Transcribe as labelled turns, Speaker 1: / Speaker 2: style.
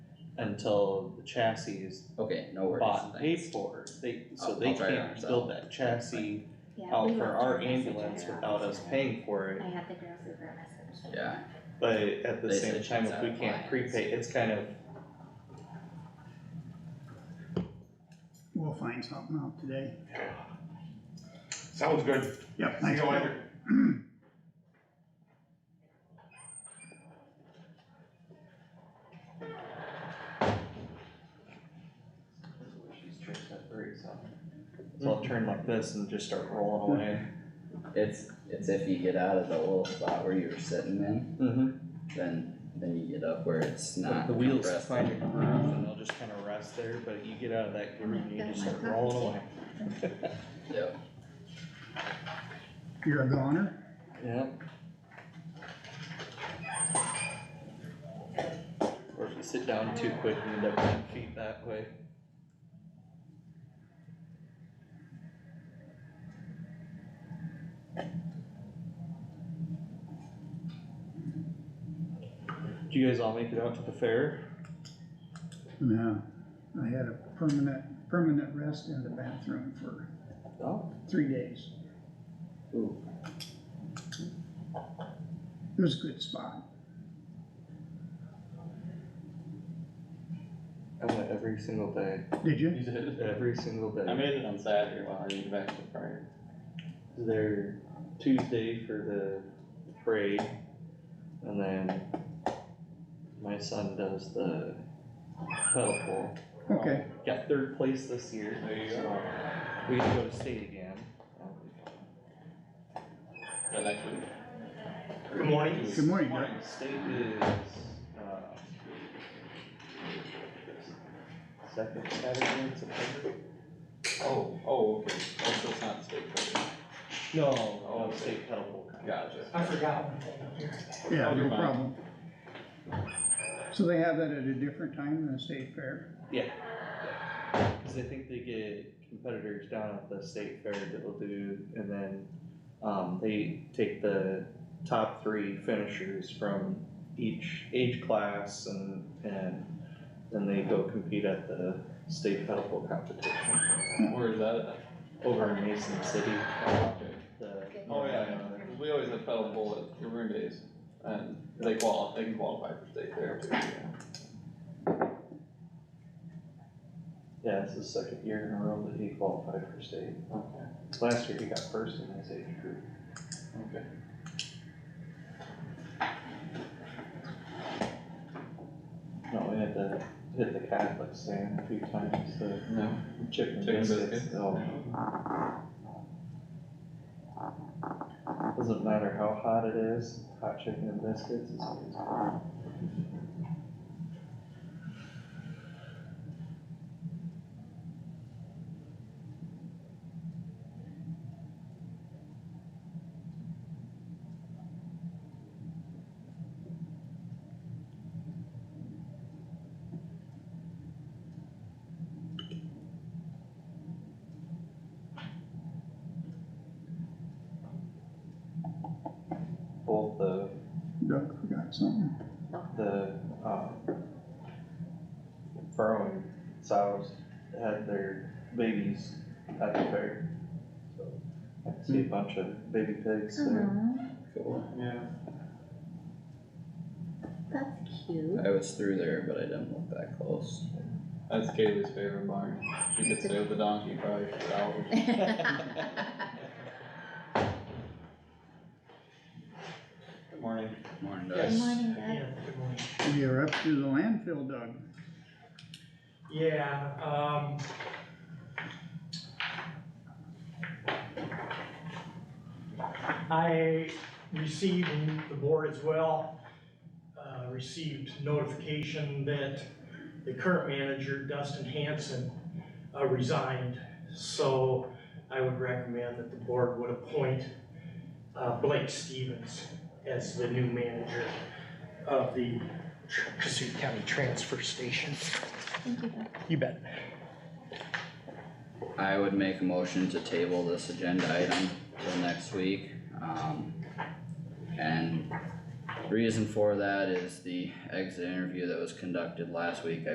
Speaker 1: until the chassis is
Speaker 2: okay, no worries.
Speaker 1: bought and paid
Speaker 2: thanks.
Speaker 1: for, they, so
Speaker 2: Oh, I'll-
Speaker 1: they
Speaker 2: I'll try it
Speaker 1: can't
Speaker 2: out,
Speaker 1: build that chassis
Speaker 3: Yeah,
Speaker 1: out
Speaker 3: we
Speaker 1: Oh, for
Speaker 3: went
Speaker 1: our
Speaker 3: through a message
Speaker 1: ambulance
Speaker 3: on our
Speaker 1: without us
Speaker 3: office.
Speaker 1: paying for it.
Speaker 3: I have the girls over a message.
Speaker 2: Yeah.
Speaker 1: But at the
Speaker 2: They
Speaker 1: same
Speaker 2: said
Speaker 1: time,
Speaker 2: she's
Speaker 1: if
Speaker 2: out
Speaker 1: we
Speaker 2: of
Speaker 1: can't
Speaker 2: compliance.
Speaker 1: prepay, it's kind of,
Speaker 4: We'll find something out today.
Speaker 5: Sounds good.
Speaker 4: Yep,
Speaker 5: See
Speaker 4: thanks.
Speaker 5: you later.
Speaker 1: she's changed that very softly. So I'll turn like this and just start rolling away.
Speaker 2: It's, it's if you get out of the little spot where you're sitting in,
Speaker 1: Mm-hmm.
Speaker 2: then, then you get up where it's
Speaker 1: The,
Speaker 2: not.
Speaker 1: the wheels
Speaker 2: compressed
Speaker 1: find a groove
Speaker 2: anymore.
Speaker 1: and they'll just kind of rest there, but you get out of that groove and you just start rolling away.
Speaker 2: Yep,
Speaker 4: You're a goner?
Speaker 1: Yeah. Or if you sit down too quick, you end up ten feet that way. Do you guys all make it out to the fair?
Speaker 4: No, I had a permanent, permanent rest in the bathroom for
Speaker 1: Oh.
Speaker 4: three days.
Speaker 2: Ooh.
Speaker 4: It was a good spot.
Speaker 1: I went every single day.
Speaker 4: Did you?
Speaker 6: You did.
Speaker 1: Every single day.
Speaker 6: I made it on Saturday while I was back to the prior.
Speaker 1: there Tuesday for the parade, and then my son does the pedal pole.
Speaker 4: Okay,
Speaker 1: Got third place this year,
Speaker 6: There you
Speaker 1: so
Speaker 6: go.
Speaker 1: we get to go to state again.
Speaker 6: Is that next week?
Speaker 5: Good morning.
Speaker 4: good morning, Doug.
Speaker 1: State is, uh, second Saturday in September?
Speaker 6: Oh, oh, okay. Oh, so it's not the state. fair.
Speaker 1: No, no, Oh, state pedal pole.
Speaker 6: Gotcha.
Speaker 7: I forgot.
Speaker 4: Yeah,
Speaker 6: Oh,
Speaker 4: no
Speaker 6: you're fine.
Speaker 4: problem. So they have that at a different time than the state fair?
Speaker 1: Cause I think they get competitors down at the state fair that'll do, and then, um, they take the top three finishers from each age class and, and then they go compete at the state pedal pole competition
Speaker 6: Where is that
Speaker 1: over in Mason City,
Speaker 6: at? Okay.
Speaker 1: the.
Speaker 6: Oh, yeah, we always have pedal bowl at your room days, and they qual, they can qualify for state fair too, yeah.
Speaker 1: Yeah, it's the second year in a row that he qualified for state.
Speaker 6: Okay.
Speaker 1: Last year he got first in his age group.
Speaker 6: Okay.
Speaker 1: No, we had to hit the Catholic stand a few times, the
Speaker 6: No,
Speaker 1: Chicken
Speaker 6: Chicken
Speaker 1: biscuits,
Speaker 6: biscuits.
Speaker 1: oh. Doesn't matter how hot it is, hot chicken and biscuits is always good. Both the,
Speaker 4: Doug forgot something.
Speaker 1: the, um, furrowing sows had their babies at the fair. So I see a bunch of baby pigs there.
Speaker 3: Aw,
Speaker 2: cool.
Speaker 6: yeah.
Speaker 3: that's cute.
Speaker 2: I was through there, but I didn't look that close.
Speaker 6: That's Kaylee's favorite barn. She could stay with the donkey probably for hours. Good morning.
Speaker 2: Morning, Doug.
Speaker 3: Good morning, Doug.
Speaker 7: Yeah, good morning.
Speaker 4: We are up to the landfill, Doug.
Speaker 7: Yeah, um. I received, and the board as well, uh, received notification that the current manager Dustin Hanson uh, resigned. So I would recommend that the board would appoint, uh, Blake Stevens as the new manager of the Tr- Kasuth County Transfer Station.
Speaker 3: Thank you, Doug.
Speaker 7: You bet.
Speaker 2: I would make a motion to table this agenda item till next week, um. And reason for that is the exit interview that was conducted last week, I